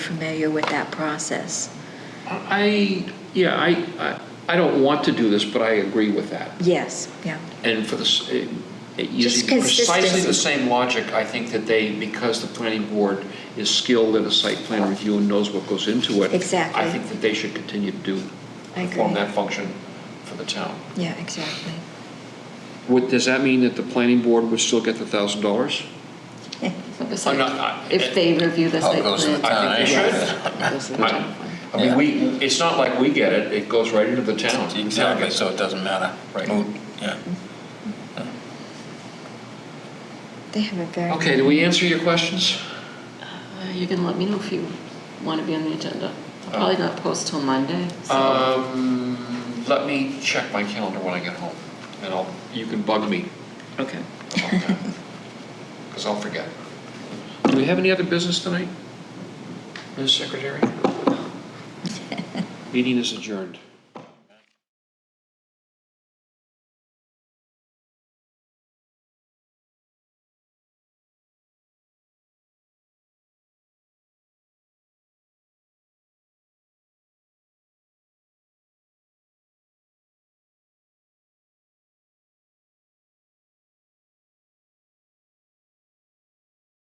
familiar with that process. I, yeah, I, I I don't want to do this, but I agree with that. Yes, yeah. And for the, s- eh, eh, Just using precisely the consistency. same logic, I think that they, because the planning board is skilled at a site plan review and knows what goes into it. Exactly. I think that they should continue to do, I perform agree. that function for the town. Yeah, exactly. Would, does that mean that the planning board would still get the thousand dollars? for the I'm site. not, I- If they review the Oh, it site goes to the plan. town. I think they anyway. should. Goes to the town plan. I mean, we, it's not like we get it, it goes right into the town. Exactly, so it doesn't matter. Right. Moot, Yeah. They have a very. Okay, do we answer your questions? Uh, You can let me know if you want to be on the agenda. I'll probably not post till Monday, Uh, so Um, let me check my calendar when I get home, and I'll, you can bug me. Okay. Because I'll forget. Do we have any other business tonight? Ms. Secretary? Meeting is adjourned.